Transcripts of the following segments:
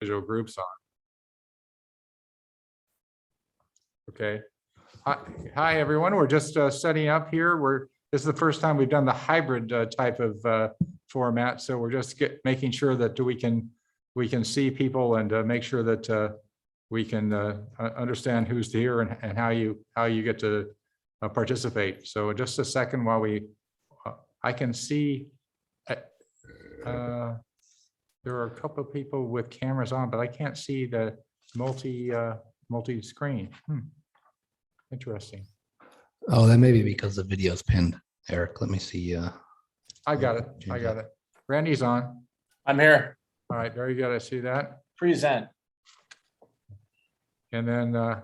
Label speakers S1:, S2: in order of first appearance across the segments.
S1: individual groups on. Okay. Hi, hi, everyone. We're just uh, setting up here. We're, this is the first time we've done the hybrid uh, type of uh, format, so we're just get, making sure that we can, we can see people and uh, make sure that uh, we can uh, u- understand who's here and, and how you, how you get to uh, participate. So just a second while we, uh, I can see uh, uh, there are a couple of people with cameras on, but I can't see the multi, uh, multi-screen. Hmm. Interesting.
S2: Oh, that may be because the video's pinned. Eric, let me see. Uh,
S1: I got it. I got it. Randy's on.
S3: I'm here.
S1: All right, very good. I see that.
S3: Present.
S1: And then uh,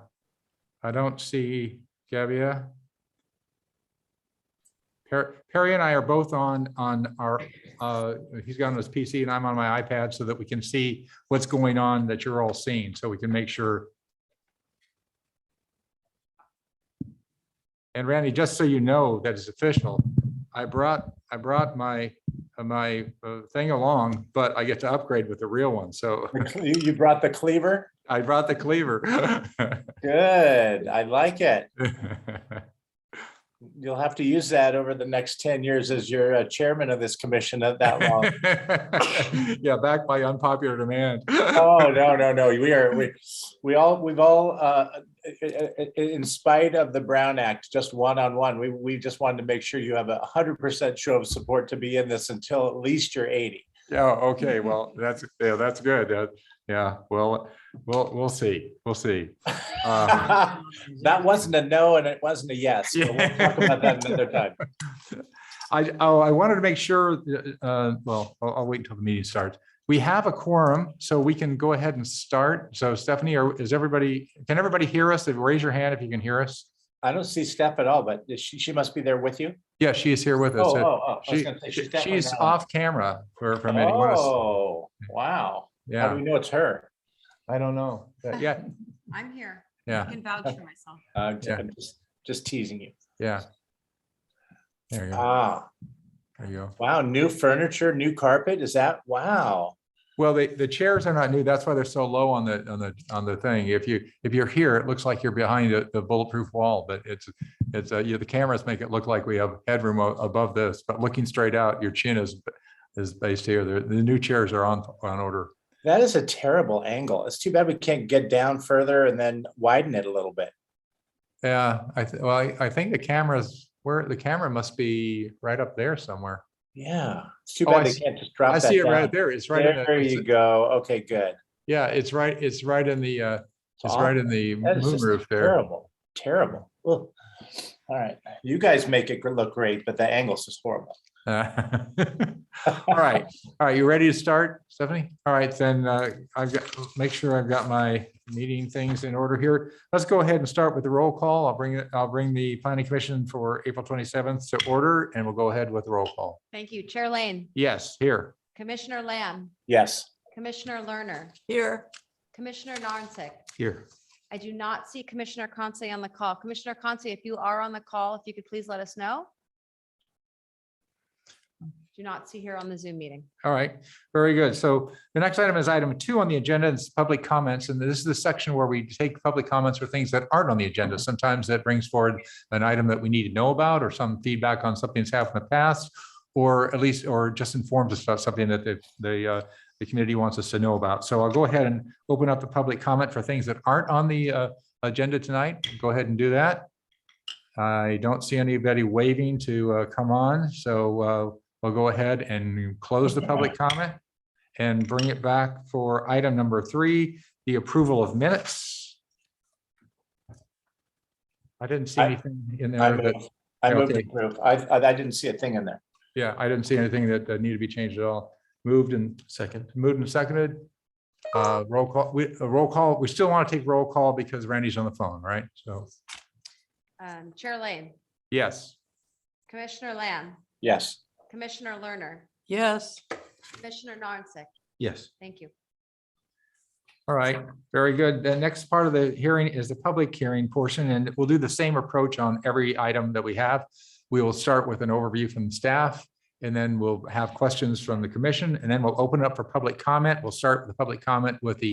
S1: I don't see Gabia. Per- Perry and I are both on, on our, uh, he's got on his PC and I'm on my iPad so that we can see what's going on that you're all seeing, so we can make sure. And Randy, just so you know, that is official. I brought, I brought my, my uh, thing along, but I get to upgrade with the real one. So
S3: The cle- You you brought the cleaver?
S1: I brought the cleaver.
S3: Good. I like it. You'll have to use that over the next 10 years as your uh, chairman of this commission at that long.
S1: Yeah, back by unpopular demand.
S3: Oh, no, no, no. We are, we, we all, we've all, uh, in spite of the Brown Act, just one-on-one, we, we just wanted to make sure you have a 100% show of support to be in this until at least you're 80.
S1: Yeah, okay, well, that's, yeah, that's good. Uh, Yeah, well, we'll, we'll see, we'll see. Uh,
S3: Uh-huh. That wasn't a no and it wasn't a yes. but We'll talk about that another time.
S1: I, oh, I wanted to make sure, uh, well, I'll, I'll wait until the meeting starts. We have a quorum, so we can go ahead and start. So Stephanie, are- is everybody, can everybody hear us? Raise your hand if you can hear us.
S3: I don't see Steph at all, but is she, she must be there with you.
S1: Yeah, she is here with us.
S3: Oh, oh,
S1: Uh,
S3: oh. I was
S1: She,
S3: gonna say,
S1: she-
S3: definitely
S1: she's
S3: not on.
S1: off camera for, for a minute. You wanna s-
S3: Oh, wow. How do
S1: Yeah,
S3: we know it's her?
S1: I don't know. But Yeah,
S4: I'm here. I
S1: yeah,
S4: can vouch for myself.
S3: I'm j-
S1: Yeah.
S3: I'm just, just teasing you.
S1: yeah. There you go,
S3: Ah,
S1: there you go.
S3: wow, new furniture, new carpet, is that, wow.
S1: Well, the, the chairs are not new. That's why they're so low on the, on the, on the thing. If you, if you're here, it looks like you're behind a- the bulletproof wall, but it's, it's, uh, yeah, the cameras make it look like we have headroom a- above this, but looking straight out, your chin is, is based here. The, the new chairs are on, on order.
S3: That is a terrible angle. It's too bad we can't get down further and then widen it a little bit.
S1: Yeah, I, th- well, I- I think the cameras, where, the camera must be right up there somewhere.
S3: Yeah, it's too
S1: Oh, I
S3: bad they
S1: see-
S3: can't just
S1: I
S3: drop
S1: see it
S3: that
S1: right
S3: down.
S1: there. It's right. in the-
S3: There
S1: it's-
S3: you go. Okay, good.
S1: Yeah, it's right, it's right in the, uh,
S3: It's
S1: it's right
S3: awful.
S1: in the
S3: That is
S1: moon
S3: just
S1: roof there.
S3: Terrible, terrible. Ugh. All right, you guys make it look great, but the angles is horrible.
S1: Uh, All right, all right, you ready to start, Stephanie? All right, then uh, I've got, make sure I've got my meeting things in order here. Let's go ahead and start with the roll call. I'll bring it, I'll bring the planning commission for April twenty-seventh to order and we'll go ahead with the roll call.
S4: Thank you. Chair Lane,
S1: Yes, here.
S4: Commissioner Lamb,
S3: Yes.
S4: Commissioner Lerner,
S5: Here,
S4: Commissioner Narnsick.
S1: Here.
S4: I do not see Commissioner Conce on the call. Commissioner Conce, if you are on the call, if you could please let us know. Do not see here on the Zoom meeting.
S1: All right, very good. So the next item is item two on the agenda, it's public comments, and this is the section where we take public comments for things that aren't on the agenda. Sometimes that brings forward an item that we need to know about, or some feedback on something that's happened in the past, or at least, or just informs us about something that the, the, uh, the community wants us to know about. So I'll go ahead and open up the public comment for things that aren't on the, uh, agenda tonight. Go ahead and do that. I don't see anybody waving to, uh, come on, so, uh, We'll go ahead and close the public comment and bring it back for item number three, the approval of minutes. I didn't see
S3: I-
S1: anything in
S3: I
S1: there that,
S3: move, I move to
S1: Okay.
S3: approve. I, I I didn't see a thing in there.
S1: yeah, I didn't see anything that that needed to be changed at all. Moved and
S6: Second,
S1: moved and seconded. Uh, roll call, we, a roll call, we still want to take roll call because Randy's on the phone, right? So,
S4: Um, Chair Lane,
S1: yes.
S4: Commissioner Lamb,
S3: Yes.
S4: Commissioner Lerner,
S5: yes,
S4: Commissioner Narnsick.
S6: yes,
S4: Thank you.
S1: All right, very good. The next part of the hearing is the public hearing portion, and we'll do the same approach on every item that we have. We will start with an overview from staff, And then we'll have questions from the commission and then we'll open it up for public comment. We'll start with the public comment with the